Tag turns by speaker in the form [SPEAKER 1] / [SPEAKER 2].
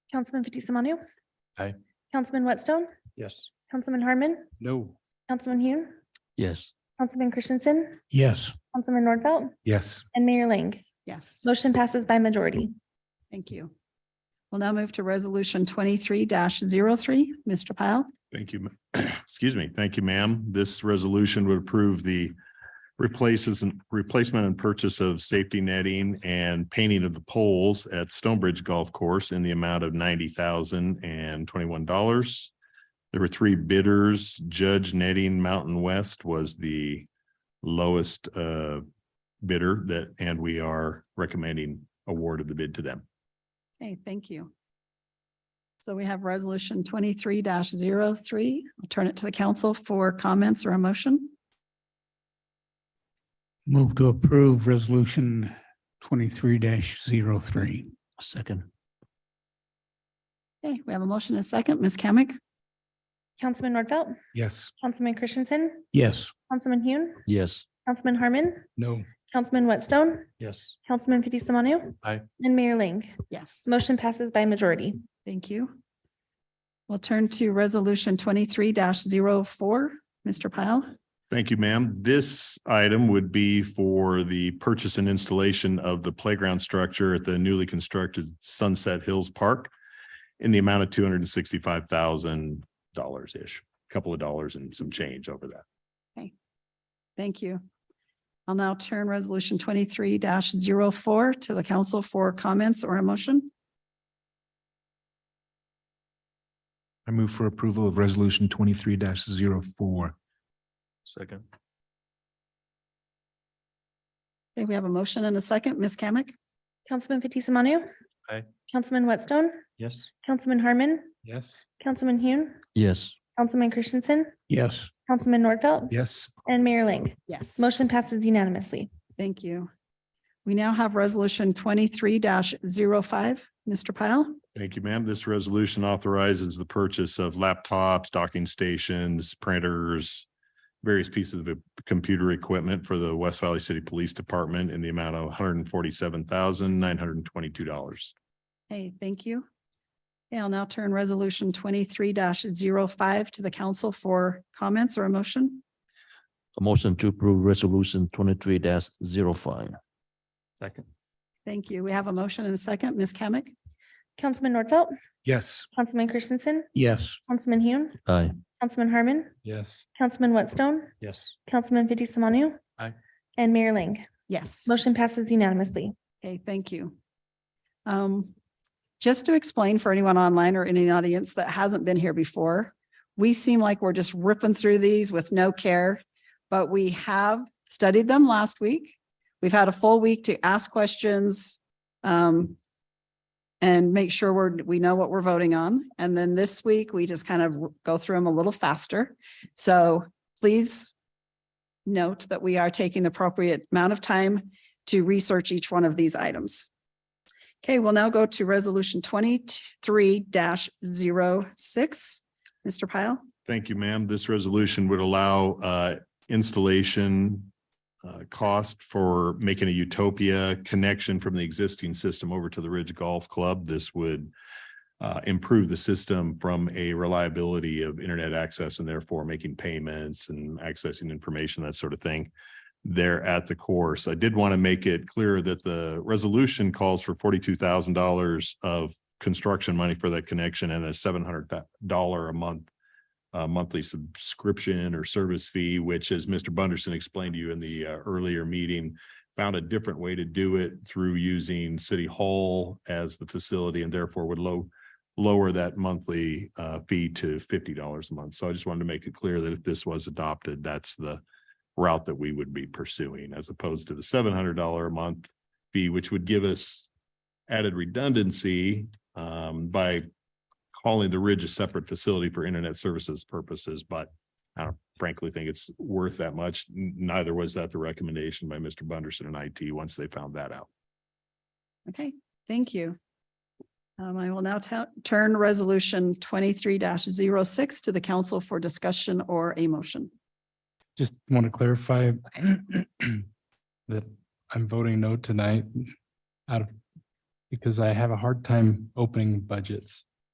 [SPEAKER 1] Councilman Fatis Manu.
[SPEAKER 2] Aye.
[SPEAKER 1] Councilman Whitstone,
[SPEAKER 2] Yes.
[SPEAKER 1] Councilman Harmon,
[SPEAKER 2] No.
[SPEAKER 1] Councilman Hune,
[SPEAKER 2] Yes.
[SPEAKER 1] Councilman Christensen,
[SPEAKER 2] Yes.
[SPEAKER 1] Councilman Nordfelt,
[SPEAKER 2] Yes.
[SPEAKER 1] and Mayor Ling.
[SPEAKER 3] Yes,
[SPEAKER 1] Motion passes by majority.
[SPEAKER 3] thank you. We'll now move to resolution twenty-three 3 Mr. Pyle.
[SPEAKER 4] Thank you. ma- Excuse me. Thank you, ma'am. This resolution would approve the replaces and replacement and purchase of safety netting and painting of the poles at Stonebridge Golf Course in the amount of ninety thousand and twenty-one dollars. There were three bidders. Judge Netting Mountain West was the lowest uh bidder that, and we are recommending award of the bid to them.
[SPEAKER 3] Okay, thank you. So we have resolution twenty-three 3 I'll turn it to the council for comments or a motion.
[SPEAKER 5] Move to approve resolution twenty-three 3 three.
[SPEAKER 2] Second.
[SPEAKER 3] Okay, we have a motion and a second. Ms. Kamic?
[SPEAKER 1] Councilman Nordfelt,
[SPEAKER 2] Yes.
[SPEAKER 1] Councilman Christensen,
[SPEAKER 5] Yes.
[SPEAKER 1] Councilman Hune,
[SPEAKER 2] Yes.
[SPEAKER 1] Councilman Harmon,
[SPEAKER 2] No.
[SPEAKER 1] Councilman Whitstone,
[SPEAKER 2] Yes.
[SPEAKER 1] Councilman Fatis Manu.
[SPEAKER 2] Aye.
[SPEAKER 1] And Mayor Ling.
[SPEAKER 3] Yes.
[SPEAKER 1] Motion passes by majority.
[SPEAKER 3] Thank you. We'll turn to resolution twenty-three 4 Mr. Pyle.
[SPEAKER 4] Thank you, ma'am. This item would be for the purchase and installation of the playground structure at the newly constructed Sunset Hills Park in the amount of two hundred and sixty-five thousand dollars-ish, couple of dollars and some change over that.
[SPEAKER 3] Thank you. I'll now turn resolution twenty-three 4 to the council for comments or a motion.
[SPEAKER 6] I move for approval of resolution twenty-three 4
[SPEAKER 2] Second.
[SPEAKER 3] Okay, we have a motion and a second. Ms. Kamic?
[SPEAKER 1] Councilman Fatis Manu.
[SPEAKER 2] Aye.
[SPEAKER 1] Councilman Whitstone,
[SPEAKER 2] Yes.
[SPEAKER 1] Councilman Harmon,
[SPEAKER 2] Yes.
[SPEAKER 1] Councilman Hune,
[SPEAKER 2] Yes.
[SPEAKER 1] Councilman Christensen,
[SPEAKER 5] Yes.
[SPEAKER 1] Councilman Nordfelt,
[SPEAKER 6] Yes.
[SPEAKER 1] and Mayor Ling.
[SPEAKER 3] Yes.
[SPEAKER 1] Motion passes unanimously.
[SPEAKER 3] Thank you. We now have resolution twenty-three 5 Mr. Pyle.
[SPEAKER 4] Thank you, ma'am. This resolution authorizes the purchase of laptops, docking stations, printers, various pieces of computer equipment for the West Valley City Police Department in the amount of one hundred and forty-seven thousand, nine hundred and twenty-two dollars.
[SPEAKER 3] Hey, thank you. Okay, I'll now turn resolution twenty-three 5 to the council for comments or a motion.
[SPEAKER 7] A motion to approve resolution twenty-three 5
[SPEAKER 2] Second.
[SPEAKER 3] Thank you. We have a motion and a second. Ms. Kamic?
[SPEAKER 1] Councilman Nordfelt,
[SPEAKER 6] Yes.
[SPEAKER 1] Councilman Christensen,
[SPEAKER 5] Yes.
[SPEAKER 1] Councilman Hune,
[SPEAKER 7] Aye.
[SPEAKER 1] Councilman Harmon,
[SPEAKER 2] Yes.
[SPEAKER 1] Councilman Whitstone,
[SPEAKER 2] Yes.
[SPEAKER 1] Councilman Fatis Manu.
[SPEAKER 2] Aye.
[SPEAKER 1] And Mayor Ling.
[SPEAKER 3] Yes.
[SPEAKER 1] Motion passes unanimously.
[SPEAKER 3] Okay, thank you. Um, just to explain for anyone online or in the audience that hasn't been here before, we seem like we're just ripping through these with no care, but we have studied them last week. We've had a full week to ask questions, um, and make sure we're, we know what we're voting on. And then this week, we just kind of go through them a little faster. So please note that we are taking the appropriate amount of time to research each one of these items. Okay, we'll now go to resolution twenty-three 6 Mr. Pyle,
[SPEAKER 4] Thank you, ma'am. This resolution would allow uh, installation uh, cost for making a Utopia connection from the existing system over to the Ridge Golf Club. This would uh, improve the system from a reliability of internet access and therefore making payments and accessing information, that sort of thing there at the course. I did want to make it clear that the resolution calls for forty-two thousand dollars of construction money for that connection and a seven hundred dollar a month uh, monthly subscription or service fee, which as Mr. Bunderson explained to you in the uh, earlier meeting, found a different way to do it through using City Hall as the facility and therefore would low, lower that monthly uh, fee to fifty dollars a month. So I just wanted to make it clear that if this was adopted, that's the route that we would be pursuing as opposed to the seven hundred dollar a month fee, which would give us added redundancy um, by calling the Ridge a separate facility for internet services purposes, but I don't frankly think it's worth that much. N- Neither was that the recommendation by Mr. Bunderson and IT once they found that out.
[SPEAKER 3] okay, thank you. Um, I will now ta- turn resolution twenty-three 6 to the council for discussion or a motion.
[SPEAKER 5] Just want to clarify
[SPEAKER 2] uh,
[SPEAKER 5] that I'm voting no tonight out of because I have a hard time opening budgets.